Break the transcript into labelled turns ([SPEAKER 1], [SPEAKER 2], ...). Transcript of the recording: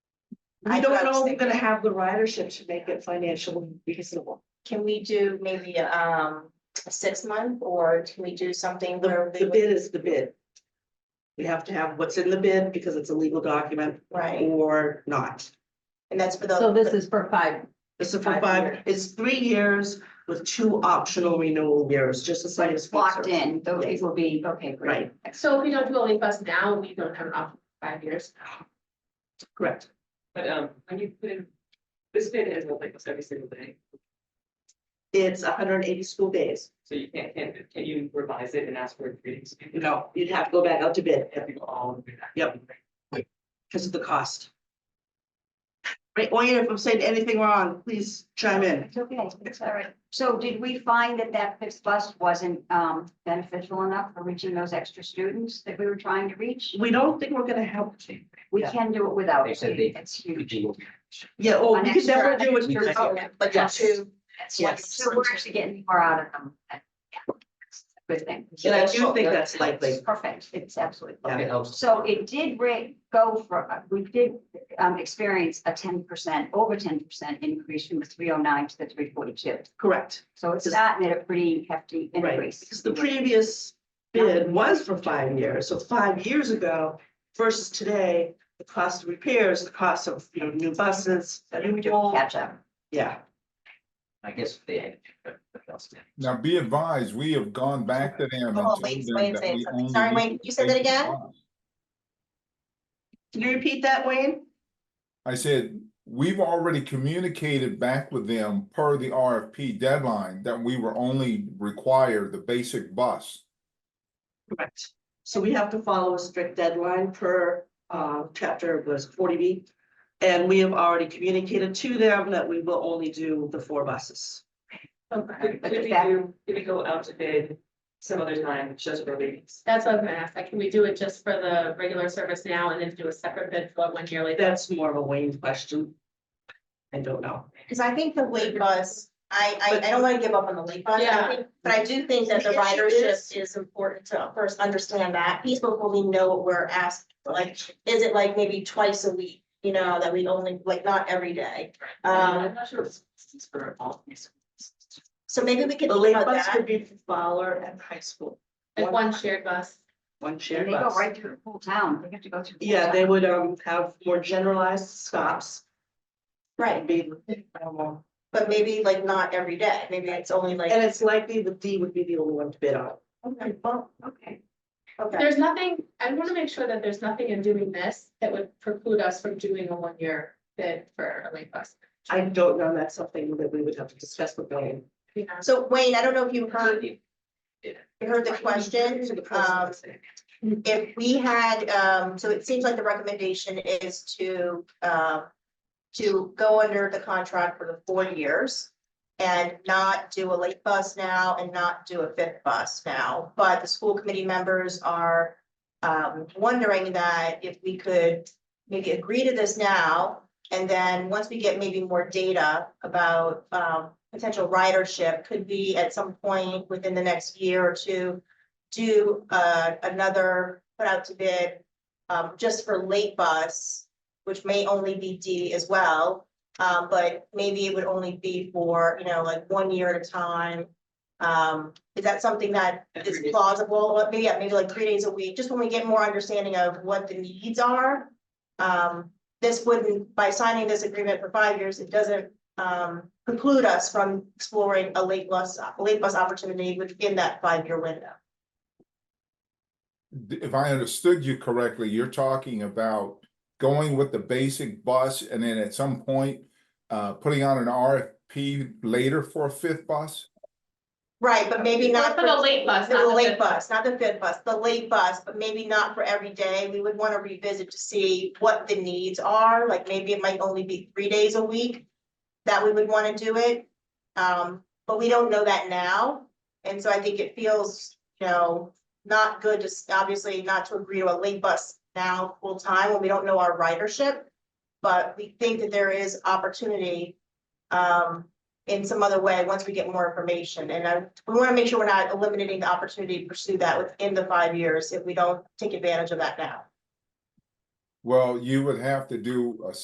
[SPEAKER 1] I
[SPEAKER 2] We don't
[SPEAKER 1] thought
[SPEAKER 2] know, we're
[SPEAKER 1] thinking-
[SPEAKER 2] gonna have the ridership to make it financially reasonable.
[SPEAKER 1] Can we do maybe um a six month or can we do something where
[SPEAKER 2] The,
[SPEAKER 1] they
[SPEAKER 2] the
[SPEAKER 1] would,
[SPEAKER 2] bid is the bid. We have to have what's in the bid because it's a legal document
[SPEAKER 1] right?
[SPEAKER 2] or not.
[SPEAKER 1] And that's for the.
[SPEAKER 3] So this is for five,
[SPEAKER 2] It's a for
[SPEAKER 1] Five
[SPEAKER 2] five,
[SPEAKER 1] years.
[SPEAKER 2] it's three years with two optional renewal years, just as I
[SPEAKER 3] it's locked in, though it will be, okay, great.
[SPEAKER 2] Right,
[SPEAKER 4] So if we don't do a late bus now, we don't have an option for five years.
[SPEAKER 2] correct.
[SPEAKER 5] But um, when you put in, this bid is like every single day,
[SPEAKER 2] It's hundred and eighty school days.
[SPEAKER 5] so you can't, can, can you revise it and ask for a reading?
[SPEAKER 2] You know, you'd have to go back out to bid
[SPEAKER 5] People all do that.
[SPEAKER 2] Yep. because of the cost. Right, or if I'm saying anything wrong, please chime in.
[SPEAKER 3] It's okay, it's all right. So did we find that that fifth bus wasn't um beneficial enough for reaching those extra students that we were trying to reach?
[SPEAKER 2] We don't think we're gonna help.
[SPEAKER 3] We
[SPEAKER 2] Yeah.
[SPEAKER 3] can do it without,
[SPEAKER 5] They
[SPEAKER 3] it.
[SPEAKER 5] said they-
[SPEAKER 3] it's huge.
[SPEAKER 2] Yeah, oh,
[SPEAKER 3] An
[SPEAKER 2] we can
[SPEAKER 3] extra-
[SPEAKER 2] definitely do
[SPEAKER 3] an
[SPEAKER 2] it.
[SPEAKER 3] extra-
[SPEAKER 2] Oh,
[SPEAKER 1] Oh, But the
[SPEAKER 3] Yes.
[SPEAKER 1] two.
[SPEAKER 3] That's
[SPEAKER 2] Yes.
[SPEAKER 3] like- So we're actually getting more out of them. Yeah. Good thing.
[SPEAKER 2] And I do think that's likely.
[SPEAKER 3] Perfect, it's absolutely.
[SPEAKER 2] Yeah.
[SPEAKER 5] It helps.
[SPEAKER 3] So it did rate go for, uh, we did um experience a ten percent, over ten percent increase from the three oh nine to the three forty-two.
[SPEAKER 2] Correct,
[SPEAKER 3] So it's
[SPEAKER 2] Just-
[SPEAKER 3] gotten at a pretty hefty
[SPEAKER 2] right,
[SPEAKER 3] increase.
[SPEAKER 2] because the previous bid was for five years, so five years ago versus today, the cost of repairs, the cost of, you know, new buses, a new wall,
[SPEAKER 3] Catch up.
[SPEAKER 2] yeah.
[SPEAKER 5] I guess they had. but- but else did.
[SPEAKER 6] Now be advised, we have gone back to them. and
[SPEAKER 1] Oh,
[SPEAKER 6] told
[SPEAKER 1] wait,
[SPEAKER 6] them
[SPEAKER 1] wait,
[SPEAKER 6] that
[SPEAKER 1] wait,
[SPEAKER 6] we
[SPEAKER 1] something.
[SPEAKER 6] only
[SPEAKER 1] sorry,
[SPEAKER 6] need
[SPEAKER 1] wait, you said that
[SPEAKER 6] basic
[SPEAKER 1] again?
[SPEAKER 6] cost.
[SPEAKER 2] Can you repeat that, Wayne?
[SPEAKER 6] I said, we've already communicated back with them per the RFP deadline that we were only required the basic bus.
[SPEAKER 2] Correct. So we have to follow a strict deadline per uh chapter was forty B. And we have already communicated to them that we will only do the four buses.
[SPEAKER 4] Okay,
[SPEAKER 5] Could could we
[SPEAKER 3] that-
[SPEAKER 5] do, could we go out to bid some other time, just for readings?
[SPEAKER 4] that's what I'm gonna ask, like, can we do it just for the regular service now and then do a separate bid for one yearly?
[SPEAKER 2] That's more of a Wayne question. I don't know.
[SPEAKER 1] Cause I think the late bus, I I I don't wanna give up on the late bus, I
[SPEAKER 4] Yeah.
[SPEAKER 1] think, but I do think that the
[SPEAKER 2] The issue is-
[SPEAKER 1] ridership is important to first understand that piece before we know what we're asked. Like, is it like maybe twice a week, you know, that we only, like, not every day, um,
[SPEAKER 5] I'm not sure if it's it's for all. these.
[SPEAKER 1] so maybe we could
[SPEAKER 2] The
[SPEAKER 1] think
[SPEAKER 2] late
[SPEAKER 1] about
[SPEAKER 2] bus
[SPEAKER 1] that.
[SPEAKER 2] could be for Fowler and high school,
[SPEAKER 4] Like one shared bus,
[SPEAKER 2] one
[SPEAKER 3] And
[SPEAKER 2] shared
[SPEAKER 3] they go
[SPEAKER 2] bus.
[SPEAKER 3] right through the whole town. They have to go through. the whole
[SPEAKER 2] Yeah,
[SPEAKER 3] town.
[SPEAKER 2] they would um have more generalized stops.
[SPEAKER 1] Right,
[SPEAKER 2] and be- um,
[SPEAKER 1] but maybe like not every day, maybe it's only like.
[SPEAKER 2] And it's likely the D would be the only one to bid on.
[SPEAKER 1] Okay, well,
[SPEAKER 3] Okay.
[SPEAKER 1] okay.
[SPEAKER 4] there's nothing, I wanna make sure that there's nothing in doing this that would preclude us from doing a one year bid for a late bus.
[SPEAKER 2] I don't know, that's something that we would have to discuss with Wayne.
[SPEAKER 4] You know?
[SPEAKER 1] So Wayne, I don't know if you heard,
[SPEAKER 5] You
[SPEAKER 1] you heard the question,
[SPEAKER 2] To the person
[SPEAKER 1] um,
[SPEAKER 2] that's there.
[SPEAKER 1] if we had, um, so it seems like the recommendation is to, um. To go under the contract for the four years and not do a late bus now and not do a fifth bus now. But the school committee members are, um, wondering that if we could maybe agree to this now. And then once we get maybe more data about, um, potential ridership, could we at some point within the next year or two do uh another put out to bid um just for late bus, which may only be D as well. Um, but maybe it would only be for, you know, like one year at a time. Um, is that something that is
[SPEAKER 5] Every day.
[SPEAKER 1] plausible? Or Maybe, yeah, maybe like three days a week, just when we get more understanding of what the needs are. Um, this wouldn't, by signing this agreement for five years, it doesn't um preclude us from exploring a late bus, a late bus opportunity within that five-year window.
[SPEAKER 6] If I understood you correctly, you're talking about going with the basic bus and then at some point uh, putting out an RFP later for a fifth bus?
[SPEAKER 1] Right, but maybe not.
[SPEAKER 4] For the late bus,
[SPEAKER 1] For
[SPEAKER 4] not
[SPEAKER 1] The
[SPEAKER 4] the
[SPEAKER 1] late
[SPEAKER 4] fifth bus.
[SPEAKER 1] bus, not the fifth bus, the late bus, but maybe not for every day. We would want to revisit to see what the needs are, like maybe it might only be three days a week. That we would want to do it, um, but we don't know that now. And so I think it feels, you know, not good to, s- obviously not to agree to a late bus now full time when we don't know our ridership. But we think that there is opportunity, um, in some other way, once we get more information, and I, we wanna make sure we're not eliminating the opportunity to pursue that within the five years if we don't take advantage of that now.
[SPEAKER 6] Well, you would have to do a